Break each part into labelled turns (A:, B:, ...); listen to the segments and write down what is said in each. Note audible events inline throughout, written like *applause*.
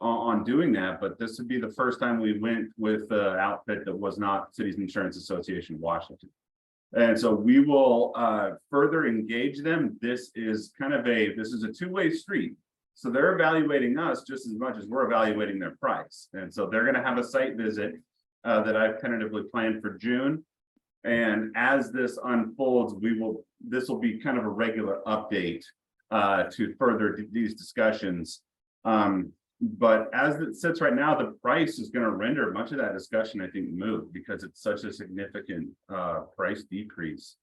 A: on, on doing that, but this would be the first time we went with the outfit that was not Cities Insurance Association Washington. And so we will, uh, further engage them. This is kind of a, this is a two-way street. So they're evaluating us just as much as we're evaluating their price. And so they're gonna have a site visit uh, that I've tentatively planned for June. And as this unfolds, we will, this will be kind of a regular update uh, to further d- these discussions. Um, but as it sits right now, the price is gonna render much of that discussion, I think, moot because it's such a significant uh, price decrease.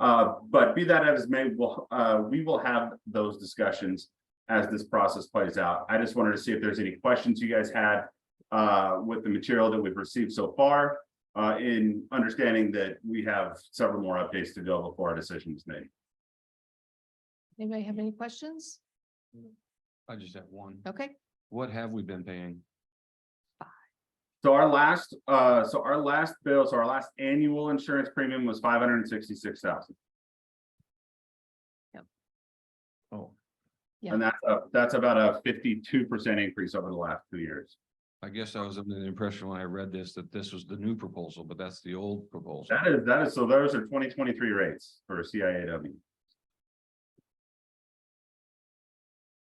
A: Uh, but be that as may, we'll, uh, we will have those discussions as this process plays out. I just wanted to see if there's any questions you guys had uh, with the material that we've received so far, uh, in understanding that we have several more updates to go before our decision is made.
B: Anybody have any questions?
C: I just have one.
B: Okay,
C: What have we been paying?
A: So our last, uh, so our last bill, so our last annual insurance premium was five hundred and sixty-six thousand.
C: Oh,
B: Yeah.
A: And that's, up- that's about a fifty-two percent increase over the last two years.
C: I guess I was under the impression when I read this that this was the new proposal, but that's the old proposal.
A: That is, that is, so those are twenty twenty-three rates for CIAW.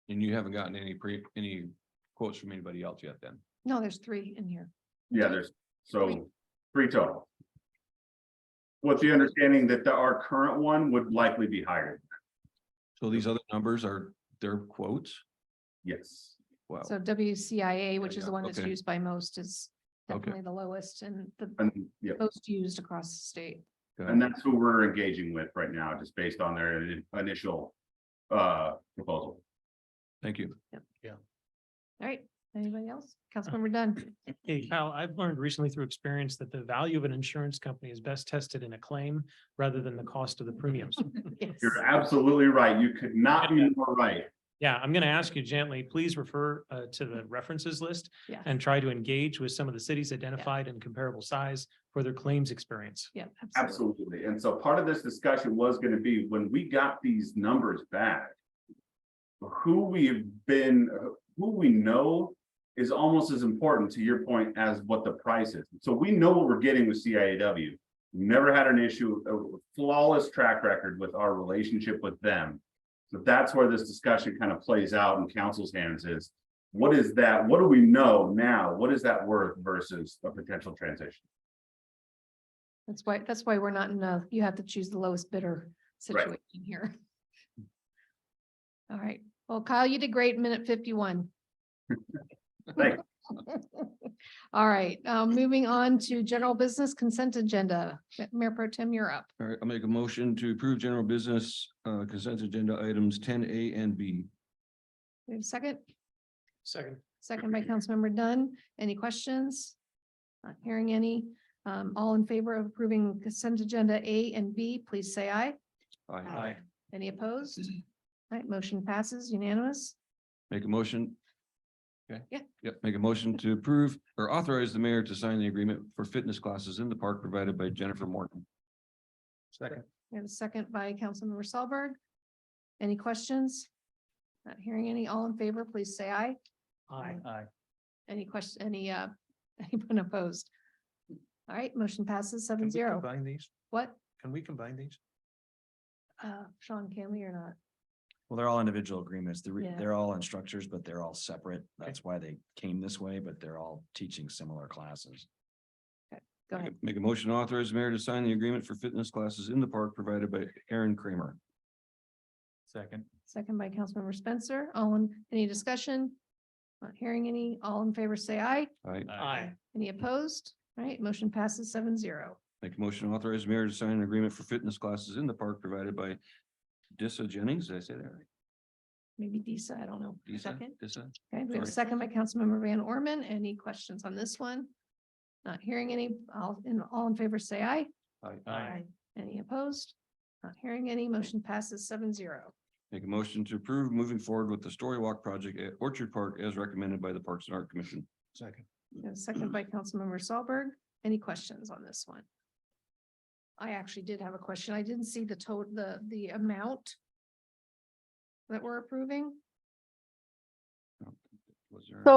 C: And you haven't gotten any pre, any quotes from anybody else yet then?
B: no, there's three in here.
A: Yeah, there's, so three total. With the understanding that the- our current one would likely be higher.
C: So these other numbers are their quotes?
A: Yes.
C: Wow.
B: So WCIA, which is the
C: yeah,
B: one that's
C: okay.
B: used by most, is
C: Okay.
B: definitely the lowest and the
A: And, yeah,
B: most used across the state.
C: Got
A: and
C: it.
A: that's who we're engaging with right now, just based on their ini- initial uh proposal.
C: Thank you.
B: All right, anybody else? Councilmember Dunn,
A: *laughs*
D: Hey Kyle, I've learned recently through experience that the value of an insurance company is best tested in a claim rather than the cost of the premiums.
B: yes,
A: You're absolutely right. You could not be more right.
D: Yeah, I'm going to ask you gently, please refer uh, to the references list
B: Yeah.
D: and try to engage with some of the cities identified in comparable size for their claims experience.
B: yeah.
A: Absolutely. And so part of this discussion was gonna be when we got these numbers back. Who we've been, who we know is almost as important to your point as what the price is. So we know what we're getting with CIAW. Never had an issue, a flawless track record with our relationship with them. So that's where this discussion kind of plays out in council's hands is. What is that? What do we know now? What is that worth versus a potential transition?
B: That's why, that's why we're not in a, you have to choose the lowest bidder situation here. All right, well, Kyle, you did great in minute fifty-one.
A: Thanks.
B: *laughs* All right, uh, moving on to general business consent agenda. Mayor Pro Tem, you're up.
C: All right, I'll make a motion to approve general business uh consent agenda items ten A and B.
B: We have a second?
D: Second.
B: Second by Councilmember Dunn. Any questions? Not hearing any. Um, all in favor of approving consent agenda A and B, please say aye.
C: I
D: Aye.
B: Any opposed? All right, motion passes unanimous.
C: make a motion. Okay.
B: Yeah.
C: Yep, make a motion to approve or authorize the mayor to sign the agreement for fitness classes in the park provided by Jennifer Morton.
D: Second.
B: We have a second by Councilmember Solberg. Any questions? Not hearing any. All in favor, please say aye.
D: Aye. Aye.
B: Any question, any, uh, *laughs* anyone opposed? All right, motion passes seven zero.
D: Combine these?
B: What,
D: Can we combine these?
B: uh, Sean, can we or not?
E: Well, they're all individual agreements. They're, re-
B: Yeah.
E: they're all instructors, but they're all separate. That's why they came this way, but they're all teaching similar classes.
B: Go
C: Make a-
B: ahead.
C: Make a motion to authorize the mayor to sign the agreement for fitness classes in the park provided by Aaron Kramer.
E: Second.
B: Second by Councilmember Spencer. All in, any discussion? Not hearing any. All in favor, say aye.
C: All right,
D: Aye.
B: Any opposed? All right, motion passes seven zero.
C: make a motion to authorize the mayor to sign an agreement for fitness classes in the park provided by Dissa Jennings, did I say that right?
B: Maybe Disa, I don't know.
C: Dissa?
B: Second.
C: Dissa?
B: Okay, we have a
C: Sorry.
B: second by Councilmember Van Orman. Any questions on this one? Not hearing any. All, in, all in favor, say aye.
C: Aye.
B: Any opposed? Not hearing any. Motion passes seven zero.
C: Make a motion to approve moving forward with the Story Walk project at Orchard Park as recommended by the Parks and Art Commission.
D: Second.
B: Second by Councilmember Solberg. Any questions on this one? I actually did have a question. I didn't see the total, the, the amount that we're approving.
C: Was there-
F: So